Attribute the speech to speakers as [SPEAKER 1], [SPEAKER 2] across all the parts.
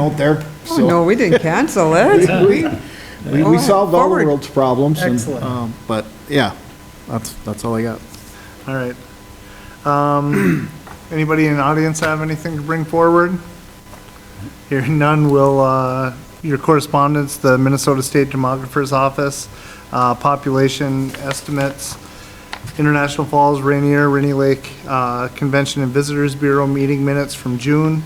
[SPEAKER 1] out there,
[SPEAKER 2] Oh,
[SPEAKER 1] so.
[SPEAKER 2] no, we didn't cancel it.
[SPEAKER 1] We, we- we solved all the
[SPEAKER 2] Forward.
[SPEAKER 1] world's problems. and,
[SPEAKER 3] Excellent.
[SPEAKER 1] um, But, yeah, that's, that's all I got.
[SPEAKER 3] All right. Um, Anybody in the audience have anything to bring forward? Hearing none, will, uh, your correspondence, the Minnesota State Demographer's Office, uh, population estimates, International Falls, Rainier, Rainy Lake uh, Convention and Visitors Bureau meeting minutes from June,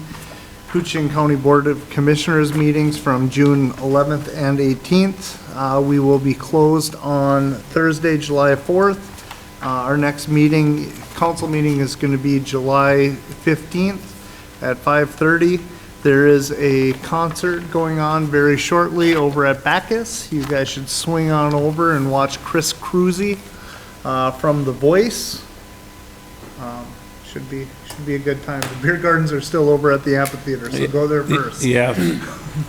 [SPEAKER 3] Coochin County Board of Commissioners meetings from June 11th and 18th. Uh, We will be closed on Thursday, July 4th. Uh, Our next meeting, council meeting is going to be July 15th at 5:30. There is a concert going on very shortly over at Bacchus. You guys should swing on over and watch Chris Cruzy uh, from The Voice. Um, Should be, should be a good time. The beer gardens are still over at the amphitheater, so go there first.
[SPEAKER 4] Yeah,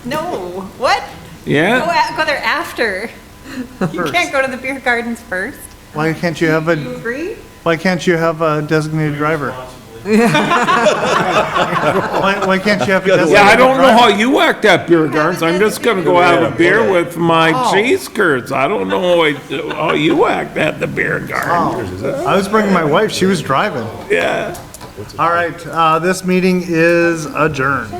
[SPEAKER 5] No, what? Go,
[SPEAKER 4] yeah.
[SPEAKER 5] a- go there after. You
[SPEAKER 3] First.
[SPEAKER 5] can't go to the beer gardens first.
[SPEAKER 3] Why can't you have
[SPEAKER 5] Do you
[SPEAKER 3] a,
[SPEAKER 5] agree?
[SPEAKER 3] why can't you have a designated driver? Why, why can't you have a designated
[SPEAKER 4] Yeah, I don't know
[SPEAKER 3] driver?
[SPEAKER 4] how you act at beer gardens. I'm just gonna go have a beer with my cheese curds. I don't know how- how you act at the beer garden.
[SPEAKER 3] I was bringing my wife, she was driving.
[SPEAKER 4] Yeah.
[SPEAKER 3] All right, uh, this meeting is adjourned.